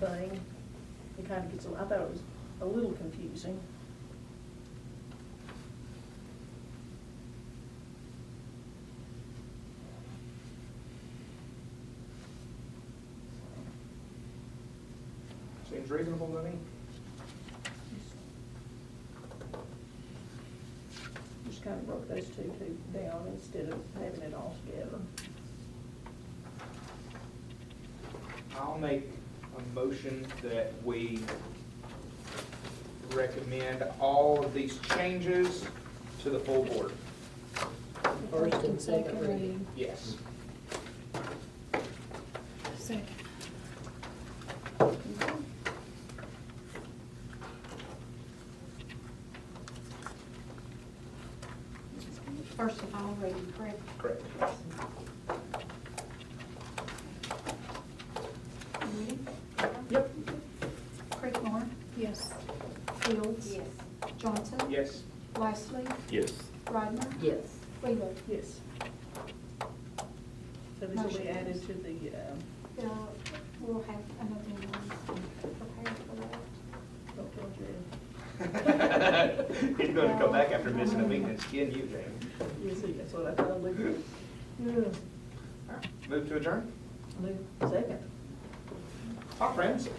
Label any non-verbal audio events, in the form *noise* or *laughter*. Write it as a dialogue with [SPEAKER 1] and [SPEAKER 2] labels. [SPEAKER 1] thing. It kind of gets, a- I thought it was a little confusing.
[SPEAKER 2] Seems reasonable to me.
[SPEAKER 1] Just kind of broke those two, two down instead of having it all together.
[SPEAKER 2] I'll make a motion that we recommend all of these changes to the full board.
[SPEAKER 3] First and second reading.
[SPEAKER 2] Yes.
[SPEAKER 3] Second. First and final reading, correct?
[SPEAKER 2] Correct.
[SPEAKER 3] Moody?
[SPEAKER 1] Yep.
[SPEAKER 3] Creekmore? Yes. Fields? Yes. Johnson?
[SPEAKER 2] Yes.
[SPEAKER 3] Wesley?
[SPEAKER 4] Yes.
[SPEAKER 3] Rodner?
[SPEAKER 5] Yes.
[SPEAKER 3] Wheeler?
[SPEAKER 1] Yes. So these will be added to the, um,
[SPEAKER 3] Uh, We'll have another one prepared for that.
[SPEAKER 1] don't tell Jared.
[SPEAKER 2] *laughs* He's gonna come back after missing a meeting and skin you, James.
[SPEAKER 1] You see, that's what I thought, I looked at. Yeah.
[SPEAKER 2] Move to adjourn?
[SPEAKER 1] Move, second.
[SPEAKER 2] Hi, friends.